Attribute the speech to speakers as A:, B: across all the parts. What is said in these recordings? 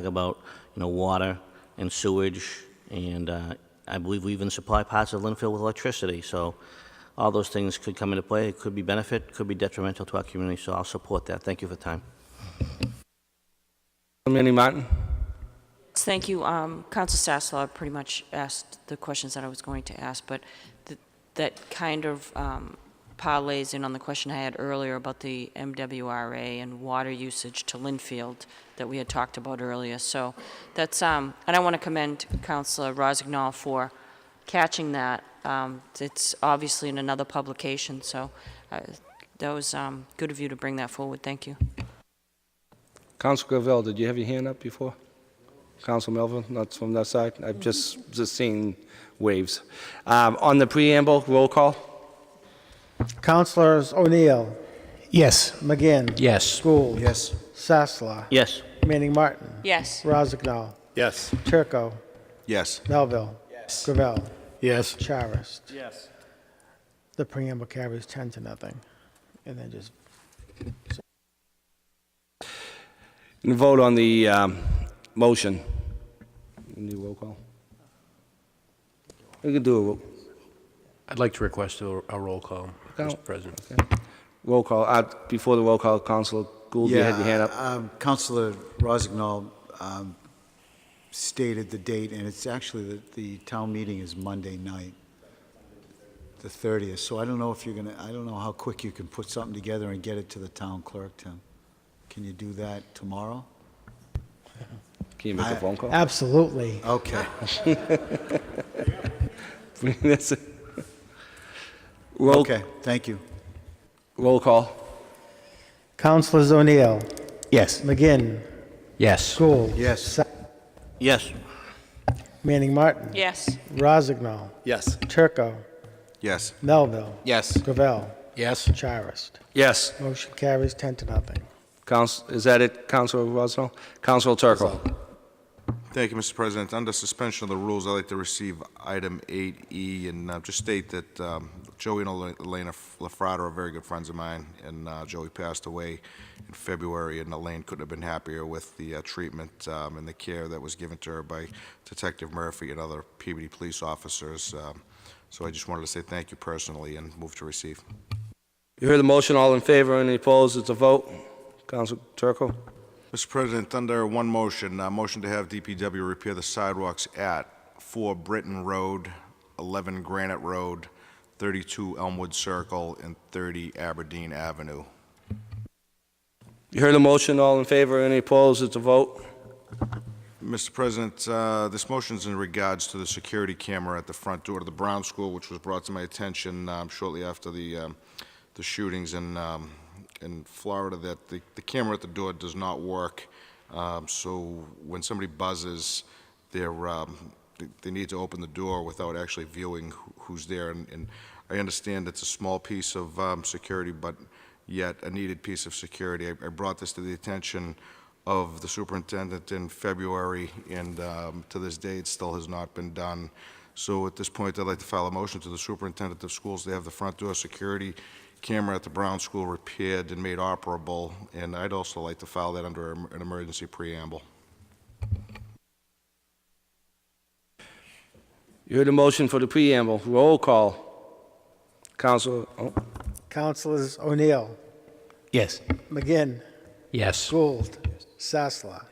A: talk about, you know, water and sewage, and uh, I believe we even supply parts of Lynnfield with electricity, so all those things could come into play. It could be benefit, could be detrimental to our community, so I'll support that. Thank you for the time.
B: Councilman Martin?
C: Thank you. Um, Council Sasslaw pretty much asked the questions that I was going to ask, but th- that kind of um, parlays in on the question I had earlier about the MWRA and water usage to Linfield that we had talked about earlier. So that's, um, and I want to commend Councilor Rossignol for catching that. Um, It's obviously in another publication, so uh, that was um, good of you to bring that forward. Thank you.
B: Council Gravel, did you have your hand up before? Council Melvin, not from that side? I've just, just seen waves. Um, On the preamble, roll call?
D: Councilors O'Neill,
E: Yes.
D: McGinn.
E: Yes.
D: Gould. Yes. Sasla.
A: Yes,
D: Manning Martin.
C: Yes.
D: Rozignol.
F: Yes.
D: Turco.
F: Yes.
D: Melville. Gravel.
E: Yes.
D: Charis. Yes. The preamble carries 10 to nothing. And then just
B: And vote on the um, motion. New roll call? We can do a roll-
E: I'd like to request a a roll call,
B: No.
E: Mr. President.
B: roll call. Uh, Before the roll call, Council Gould, you had your hand up.
F: um, Councilor Rozignol um, stated the date, and it's actually, the, the town meeting is Monday night, the 30th, so I don't know if you're going to, I don't know how quick you can put something together and get it to the town clerk, Tim. Can you do that tomorrow?
B: Can you make a phone call?
D: absolutely.
F: Okay.
B: That's it. Roll,
F: Okay, thank you.
B: roll call?
D: Councilors O'Neill,
E: Yes.
D: McGinn,
E: Yes.
D: Gould.
F: Yes.
D: Sa-
A: yes,
D: Manning Martin.
C: Yes.
D: Rozignol.
F: Yes.
D: Turco.
F: Yes.
D: Melville.
B: Yes.
D: Gravel.
E: Yes.
D: Charis.
B: Yes.
D: Motion carries 10 to nothing.
B: Council, is that it, Council Rosenthal? Council Turco?
G: Thank you, Mr. President. Under suspension of the rules, I'd like to receive item 8E and uh, just state that um, Joey and Ela- Elena LaFrada are very good friends of mine, and uh, Joey passed away in February, and Elaine couldn't have been happier with the uh, treatment um, and the care that was given to her by Detective Murphy and other PBD police officers. Um, So I just wanted to say thank you personally and move to receive.
B: You heard the motion, all in favor, any opposed, it's a vote. Council Turco?
G: Mr. President, under one motion, uh motion to have DPW repair the sidewalks at 4 Britton Road, 11 Granite Road, 32 Elmwood Circle, and 30 Aberdeen Avenue.
B: You heard the motion, all in favor, any opposed, it's a vote.
G: Mr. President, uh, this motion's in regards to the security camera at the front door to the Brown School, which was brought to my attention um, shortly after the um, the shootings in um, in Florida, that the the camera at the door does not work. Um, So when somebody buzzes, they're, um, they- they need to open the door without actually viewing who- who's there. And- And I understand it's a small piece of um, security, but yet a needed piece of security. I I brought this to the attention of the superintendent in February, and um, to this day, it still has not been done. So at this point, I'd like to file a motion to the superintendent of schools to have the front door security camera at the Brown School repaired and made operable, and I'd also like to file that under em- an emergency preamble.
B: You heard the motion for the preamble, roll call. Council, oh,
D: Councilors O'Neill,
E: Yes.
D: McGinn,
E: Yes.
D: Gould, Sasla,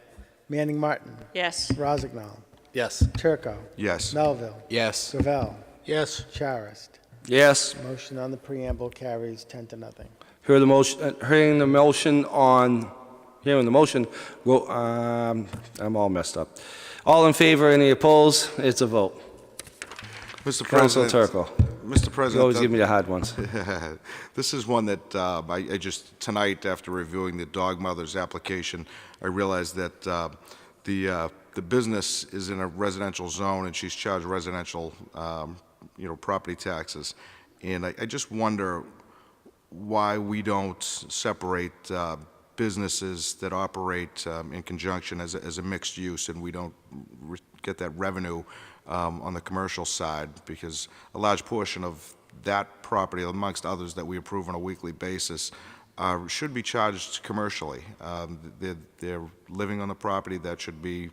D: Manning Martin,
C: Yes.
D: Rozignol,
F: Yes.
D: Turco,
G: Yes.
D: Melville,
F: Yes.
D: Gravel,
F: Yes.
D: Charist.
B: yes.
D: Motion on the preamble carries 10 to nothing.
B: Heard the motion, uh, hearing the motion on, hearing the motion, ro- um, I'm all messed up. All in favor, any opposed, it's a vote.
G: Mr.
B: Council
G: President.
B: Turco,
G: Mr. President.
B: you always
G: uh,
B: give me the hard ones.
G: This is one that uh, I I just, tonight, after reviewing the dog mother's application, I realized that uh, the, uh, the business is in a residential zone, and she's charged residential, um, you know, property taxes. And I I just wonder why we don't separate uh, businesses that operate um, in conjunction as a as a mixed use, and we don't re- get that revenue um, on the commercial side, because a large portion of that property, amongst others that we approve on a weekly basis, uh, should be charged commercially. Um, They're they're living on the property, that should be